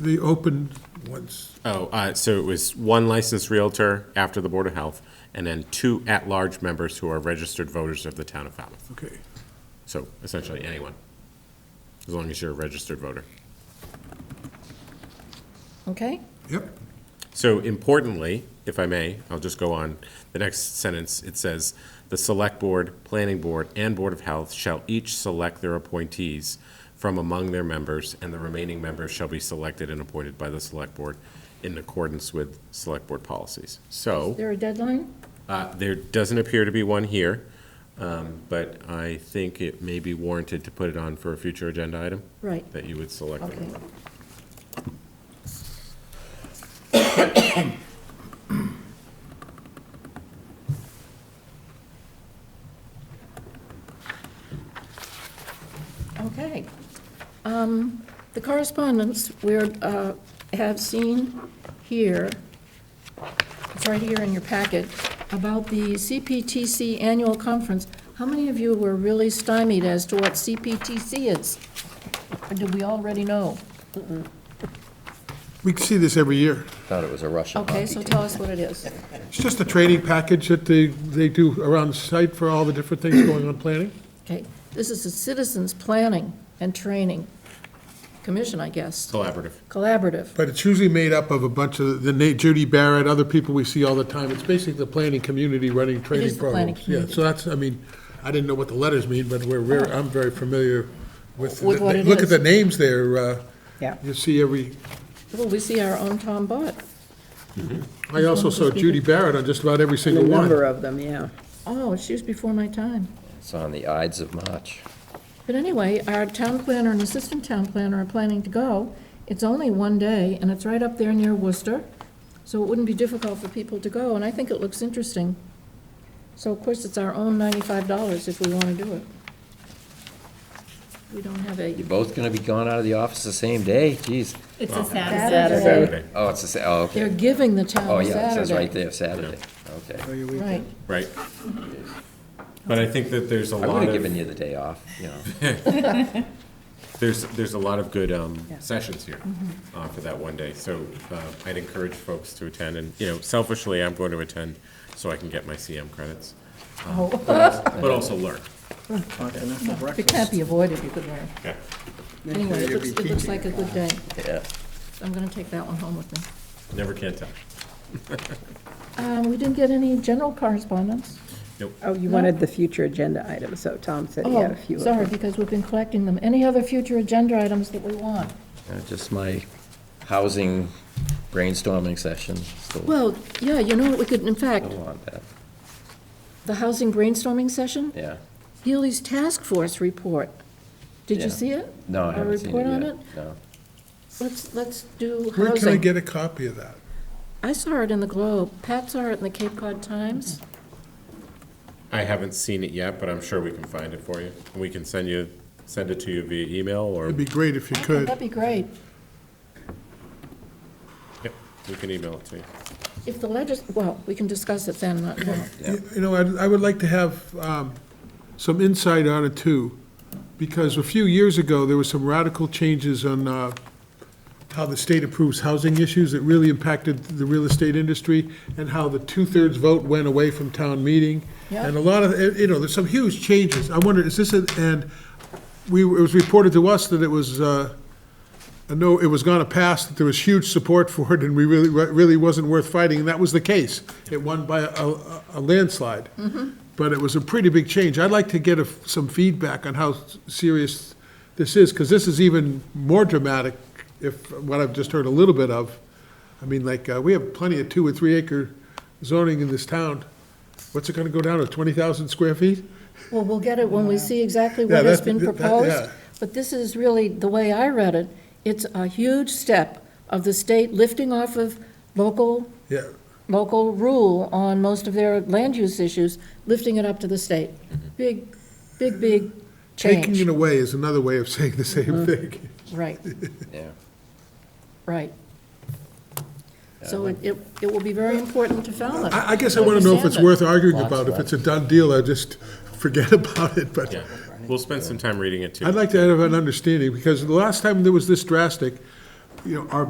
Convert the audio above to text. the open ones? Oh, uh, so it was one licensed Realtor after the Board of Health, and then two at-large members who are registered voters of the town of Falmouth. Okay. So essentially anyone, as long as you're a registered voter. Okay? Yep. So importantly, if I may, I'll just go on. The next sentence, it says, "The Select Board, Planning Board, and Board of Health shall each select their appointees from among their members, and the remaining members shall be selected and appointed by the Select Board in accordance with Select Board policies." So, There a deadline? uh, there doesn't appear to be one here, um, but I think it may be warranted to put it on for a future agenda item, Right, that you would select. them. okay. Okay. Um, The correspondence we're, uh, have seen here, it's right here in your packet, about the CPTC annual conference. How many of you were really stymied as to what CPTC is? Or do we already know? We see this every year. Thought it was a Russian Okay, so tell us what it is. It's just a training package that they, they do around the site for all the different things going on planning. Okay, this is the Citizens Planning and Training Commission, I guess, Collaborative. collaborative. But it's usually made up of a bunch of, the Nate, Judy Barrett, other people we see all the time. It's basically the planning community running training the planning programs. Yeah, so that's, I mean, I didn't know what the letters mean, but we're, very- I'm very familiar with. With the- what it Look at is. the names there. uh, Yeah. You see every, Well, we see our own Tom Bott. I also saw Judy Barrett on just about every The single number one. of them, yeah. Oh, she was before my time. It's on the Ides of March. But anyway, our town planner and assistant town planner are planning to go. It's only one day, and it's right up there near Worcester, so it wouldn't be difficult for people to go, and I think it looks interesting. So of course, it's our own ninety-five dollars if we want to do it. We don't have a You're both gonna be gone out of the office the same day? Jeez. It's a Saturday. Saturday, Oh, it's the sa- oh, They're okay. giving the town Oh, Saturday. yeah, it says right there, Saturday. Okay. Right. Right. But I think that there's a I lot would've of- given you the day off, you know. There's, there's a lot of good um, sessions here uh, for that one day, so uh, I'd encourage folks to attend, and, you know, selfishly, I'm going to attend so I can get my CM credits, Oh, um, but also- but also learn. It can't be avoided, you could learn. Yeah. Anyway, it looks, it looks like a good day. Yeah. I'm gonna take that one home with me. Never can tell. Um, we didn't get any general correspondence. Oh, you wanted the future agenda items, so Tom said he had Oh, a few of them. sorry, because we've been collecting them. Any other future agenda items that we want? Uh, Just my housing brainstorming session. Still Well, yeah, you know what, we could, in fact, still want that, the housing brainstorming session, yeah. Healy's task force report. Did Yeah. you see it? No, I Our haven't seen it report on yet. it? No. Let's, let's do Where can I housing. get a copy of that? I saw it in the Globe. Pat saw it in the Cape Cod Times. I haven't seen it yet, but I'm sure we can find it for you. We can send you, send it to you via email, or It'd be great if you could. That'd be great. Yep, we can email it to you. If the legis, well, we can discuss it then, not now. You you know, I'd- I would like to have um, some insight on it too, because a few years ago, there were some radical changes on uh, how the state approves housing issues that really impacted the real estate industry, and how the two-thirds vote went away from town meeting. Yeah. And a lot of, eh, you know, there's some huge changes. I wonder, is this, a- and we, it was reported to us that it was, uh, I know it was going to pass, that there was huge support for it, and we really, really wasn't worth fighting, and that was the case. It won by a- a a landslide. But it was a pretty big change. I'd like to get a- some feedback on how serious this is, because this is even more dramatic, if, what I've just heard a little bit of. I mean, like, uh, we have plenty of two and three acre zoning in this town. What's it going to go down to, 20,000 square feet? Well, we'll get it when we see exactly Yeah, what has that's- been that- that- yeah. proposed. But this is really, the way I read it, it's a huge step of the state lifting off of local, Yeah, local rule on most of their land use issues, lifting it up to the state. Big, big, big taking it change. away is another way of saying the same thing. Right, Yeah. right. So it, it it will be very important to Falmouth. I, I guess I want to know if it's worth arguing Lots about. of If it's a done deal, I just forget about it, but Yeah, we'll spend some time reading it, too. I'd like to have an understanding, because the last time there was this drastic, you know, our